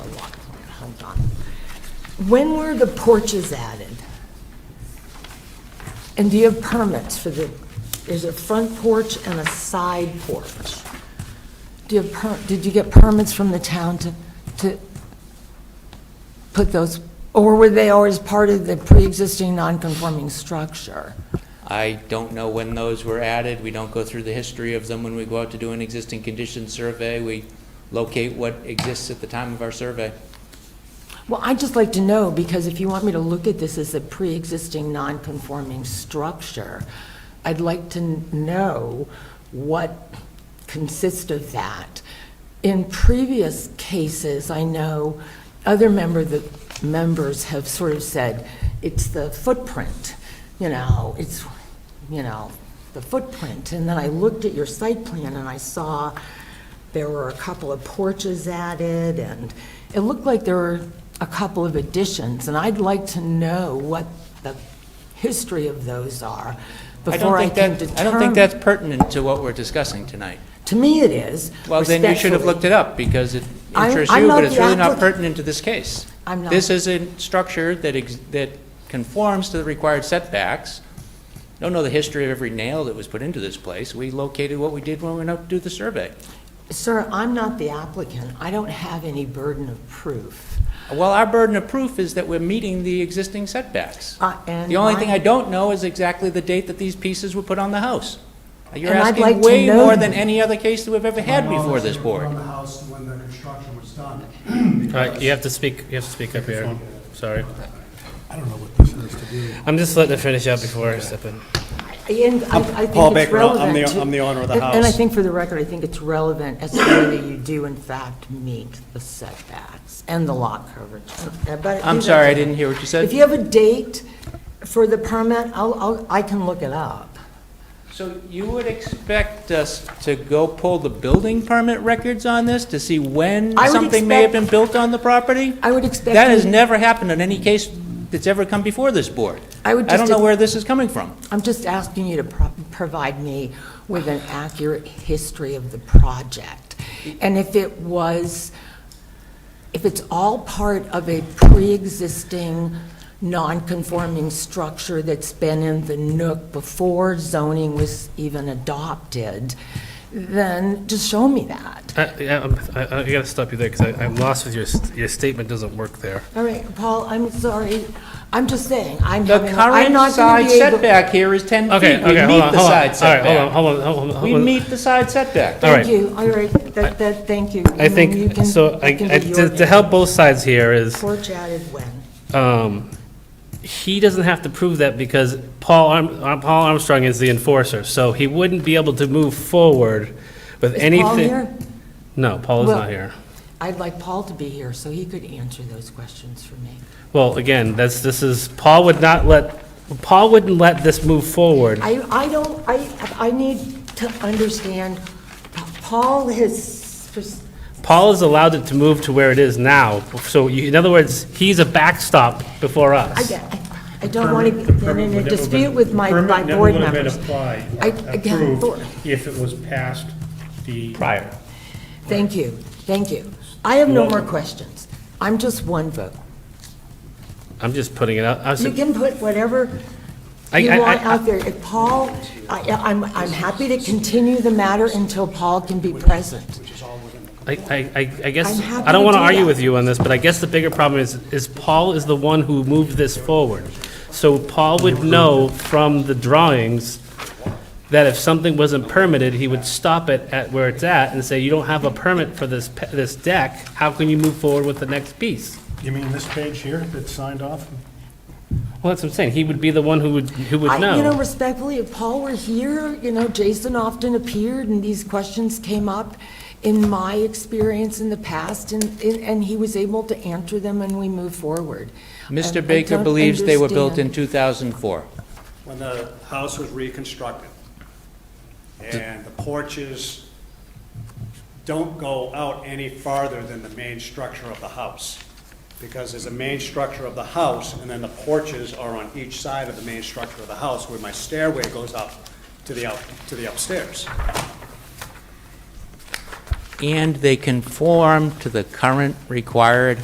hold on. When were the porches added? And do you have permits for the, there's a front porch and a side porch? Do you have, per- did you get permits from the town to, to put those, or were they always part of the pre-existing non-conforming structure? I don't know when those were added. We don't go through the history of them when we go out to do an existing condition survey. We locate what exists at the time of our survey. Well, I'd just like to know, because if you want me to look at this as a pre-existing non-conforming structure, I'd like to n- know what consists of that. In previous cases, I know other member, the members have sort of said, it's the footprint, you know, it's, you know, the footprint. And then I looked at your site plan and I saw there were a couple of porches added, and it looked like there were a couple of additions, and I'd like to know what the history of those are I don't before I think can that- determine. I don't think that's pertinent to what we're discussing tonight. To me, it is. Well, then you should have respectfully. looked it up, because it I'm- interests I'm you, not but it's the really not applic- pertinent to this case. I'm not. This is a structure that, ex- that conforms to the required setbacks. Don't know the history of every nail that was put into this place. We located what we did when we went out to do the survey. Sir, I'm not the applicant. I don't have any burden of proof. Well, our burden of proof is that we're meeting the existing setbacks. Uh, and The only my- thing I don't know is exactly the date that these pieces were put on the house. You're And I'd like asking to way know- more than any other case that we've ever had My knowledge before this they were board. On the house when the construction was done. All right, you have to speak, you have to speak up here. Sorry. I don't know what this has to do. I'm just letting it finish up before I step in. And I I think Paul it's Baker, I'm relevant the- to- I'm the owner of the and- And I house. think for the record, I think it's relevant as to whether you do in fact meet the setbacks and the lot coverage. But I I'm think sorry, I that's- didn't hear what you If said. you have a date for the permit, I'll, I'll, I can look it up. So you would expect us to go pull the building permit records on this to see when I would something may have expect- been built on the property? I would expect. That has you- never happened in any case that's ever come before this board. I would I don't just- know where this is coming from. I'm just asking you to pro- provide me with an accurate history of the project. And if it was, if it's all part of a pre-existing, non-conforming structure that's been in the nook before zoning was even adopted, then just show me that. I, Uh, yeah, I'm- I, I gotta stop you there, because I'm lost with your, st- your statement doesn't work there. All right, Paul, I'm sorry. I'm just saying, I'm The having, I'm current not going side to be able. setback here is 10 feet. Okay, We okay, meet hold on, the hold on. All side right, hold setback. on, hold on, hold on, hold We on. meet the side setback. All right. Thank you, all right, that, that, thank you. I And then you think, can- so, I, that can I- be your to to help both sides here is, Porch added when? um, he doesn't have to prove that because Paul Arm, uh, Paul Armstrong is the enforcer, so he wouldn't be able to move forward with Is anything. Paul here? No, Paul is Well- not here. I'd like Paul to be here, so he could answer those questions for me. Well, again, that's, this is, Paul would not let, Paul wouldn't let this move forward. I, I don't, I, I need to understand, Paul has, Paul has allowed it to move to where it is now. So you- in other words, he's a backstop before I, us. I don't want to get in a dispute with my, my board members. Permit never I- would have been I applied, can't afford- approved, if it was past the. Prior. Thank you, thank you. I have no more questions. I'm just one vote. I'm just putting it out. I was- You can put whatever I- you I- want I- out there. If Paul, I, I'm, I'm happy to continue the matter until Paul can be present. I, I, I- I guess, I'm happy I don't to want to do argue that. with you on this, but I guess the bigger problem is, is Paul is the one who moved this forward. So Paul would know from the drawings that if something wasn't permitted, he would stop it at where it's at and say, you don't have a permit for this, pe- this deck, how can you move forward with the next piece? You mean this page here that's signed off? Well, that's what I'm saying, he would be the one who would, who would I- You know, know. respectfully, if Paul were here, you know, Jason often appeared, and these questions came up in my experience in the past, and, and- and he was able to answer them, and we moved forward. I- I Mr. Baker don't believes they were built in understand. 2004. When the house was reconstructed, and the porches don't go out any farther than the main structure of the house, because there's a main structure of the house, and then the porches are on each side of the main structure of the house, where my stairway goes up to the, up to the upstairs. And they conform to the current required